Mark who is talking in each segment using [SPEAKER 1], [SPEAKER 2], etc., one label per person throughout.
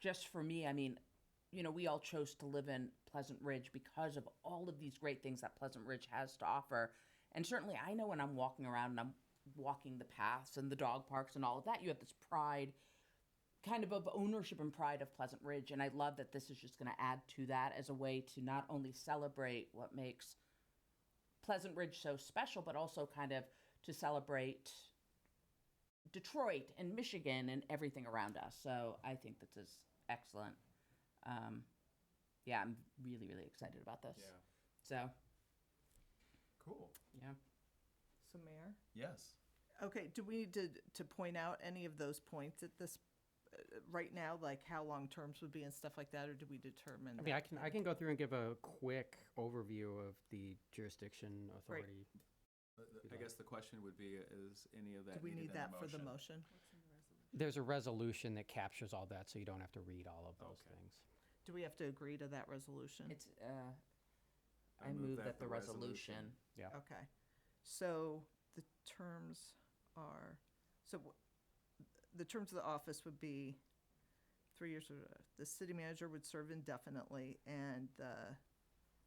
[SPEAKER 1] just for me, I mean, you know, we all chose to live in Pleasant Ridge because of all of these great things that Pleasant Ridge has to offer. And certainly, I know when I'm walking around and I'm walking the paths and the dog parks and all of that, you have this pride, kind of of ownership and pride of Pleasant Ridge. And I love that this is just going to add to that as a way to not only celebrate what makes Pleasant Ridge so special, but also kind of to celebrate Detroit and Michigan and everything around us. So I think this is excellent. Um, yeah, I'm really, really excited about this.
[SPEAKER 2] Yeah.
[SPEAKER 1] So,
[SPEAKER 2] Cool.
[SPEAKER 1] yeah.
[SPEAKER 3] So Mayor?
[SPEAKER 2] Yes.
[SPEAKER 3] Okay, do we need to, to point out any of those points at this, uh, right now, like how long terms would be and stuff like that, or do we determine?
[SPEAKER 4] I mean,
[SPEAKER 3] that?
[SPEAKER 4] I can, I can go through and give a quick overview of the jurisdiction authority.
[SPEAKER 2] I guess the question would be, uh, is any of that
[SPEAKER 3] Do we
[SPEAKER 2] needed
[SPEAKER 3] need
[SPEAKER 2] in
[SPEAKER 3] that for the motion?
[SPEAKER 4] There's a resolution that captures all that, so you don't have to read all of those
[SPEAKER 2] Okay.
[SPEAKER 4] things.
[SPEAKER 3] Do we have to agree to that resolution?
[SPEAKER 1] It's, uh, I, move, that, the resolution.
[SPEAKER 4] Yeah.
[SPEAKER 3] Okay, so the terms are, so w- the terms of the office would be three years, uh, the city manager would serve indefinitely, and the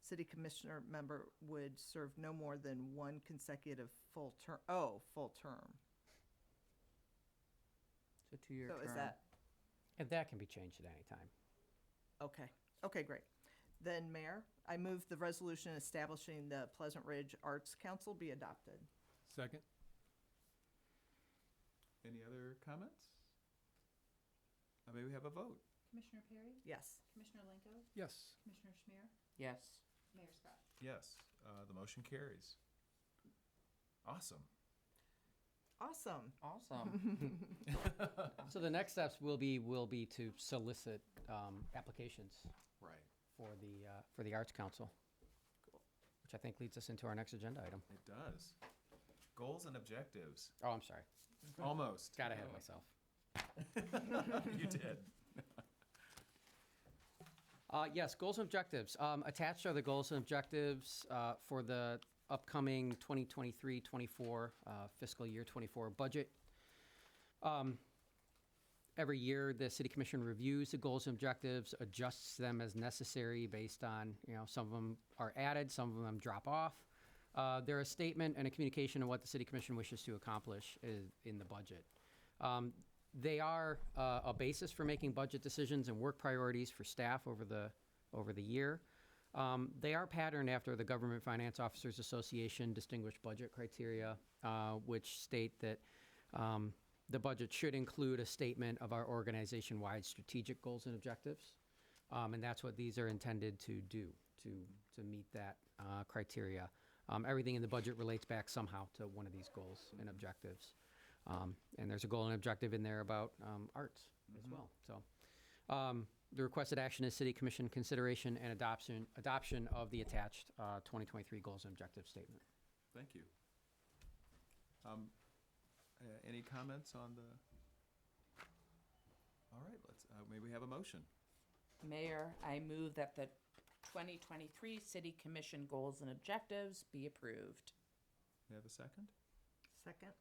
[SPEAKER 3] city commissioner member would serve no more than one consecutive full term, oh, full term.
[SPEAKER 1] So, two year
[SPEAKER 3] So
[SPEAKER 1] term.
[SPEAKER 3] is that,
[SPEAKER 4] And that can be changed at any time.
[SPEAKER 3] okay, okay, great. Then, Mayor, I move the resolution establishing the Pleasant Ridge Arts Council be adopted.
[SPEAKER 5] Second?
[SPEAKER 2] Any other comments? Uh, Maybe we have a vote.
[SPEAKER 6] Commissioner Perry?
[SPEAKER 3] Yes.
[SPEAKER 6] Commissioner Lenko?
[SPEAKER 5] Yes.
[SPEAKER 6] Commissioner Schmier?
[SPEAKER 1] Yes.
[SPEAKER 6] Mayor Scott?
[SPEAKER 2] Yes, uh, the motion carries. Awesome.
[SPEAKER 3] Awesome.
[SPEAKER 1] Awesome.
[SPEAKER 4] So the next steps will be, will be to solicit um, applications
[SPEAKER 2] Right.
[SPEAKER 4] for the, uh, for the Arts Council, which I think leads us into our next agenda item.
[SPEAKER 2] It does. Goals and objectives.
[SPEAKER 4] Oh, I'm sorry.
[SPEAKER 2] Almost.
[SPEAKER 4] Got ahead of myself.
[SPEAKER 2] You did.
[SPEAKER 4] Uh, yes, goals and objectives. Um, attached are the goals and objectives uh, for the upcoming 2023 24 uh, fiscal year 24 budget. Um, Every year, the city commission reviews the goals and objectives, adjusts them as necessary based on, you know, some of them are added, some of them drop off. Uh, they're a statement and a communication of what the city commission wishes to accomplish i- in the budget. Um, they are uh, a basis for making budget decisions and work priorities for staff over the over the year. Um, they are patterned after the Government Finance Officers Association distinguished budget criteria, uh, which state that um, the budget should include a statement of our organization wide strategic goals and objectives. Um, and that's what these are intended to do to, to meet that uh, criteria. Um, everything in the budget relates back somehow to one of these goals and objectives. Um, and there's a goal and objective in there about um, arts as well. So um, the requested action is City Commission consideration and adoption adoption of the attached uh, 2023 goals and objectives statement.
[SPEAKER 2] Thank you. Um, uh, any comments on the? All right, let's, uh, maybe we have a motion.
[SPEAKER 1] Mayor, I move that the 2023 City Commission goals and objectives be approved.
[SPEAKER 2] We have a second?
[SPEAKER 3] Second?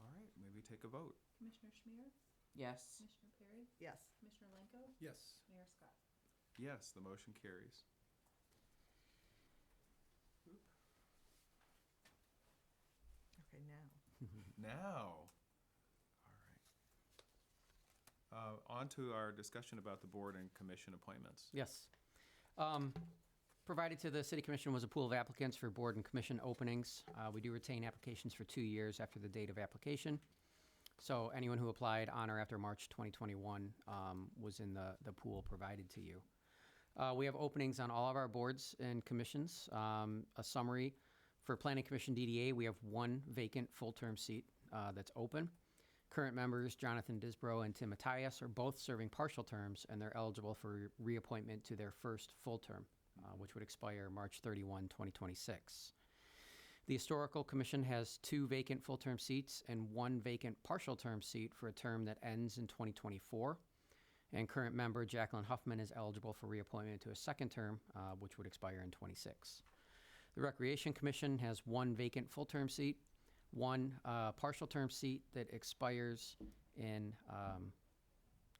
[SPEAKER 2] All right, maybe take a vote.
[SPEAKER 6] Commissioner Schmier?
[SPEAKER 1] Yes.
[SPEAKER 6] Commissioner Perry?
[SPEAKER 3] Yes.
[SPEAKER 6] Commissioner Lenko?
[SPEAKER 5] Yes.
[SPEAKER 6] Mayor Scott?
[SPEAKER 2] Yes, the motion carries.
[SPEAKER 3] Okay, now.
[SPEAKER 2] Now, all right. Uh, on to our discussion about the board and commission appointments.
[SPEAKER 4] Yes. Um, provided to the city commission was a pool of applicants for board and commission openings. Uh, we do retain applications for two years after the date of application. So anyone who applied on or after March 2021 um, was in the, the pool provided to you. Uh, we have openings on all of our boards and commissions. Um, a summary for Planning Commission DDA, we have one vacant full term seat uh, that's open. Current members Jonathan Disbro and Tim Matthias are both serving partial terms, and they're eligible for reappointment to their first full term, uh, which would expire March 31, 2026. The Historical Commission has two vacant full term seats and one vacant partial term seat for a term that ends in 2024. And current member Jacqueline Huffman is eligible for reappointment to a second term, uh, which would expire in 26. The Recreation Commission has one vacant full term seat, one uh, partial term seat that expires in um,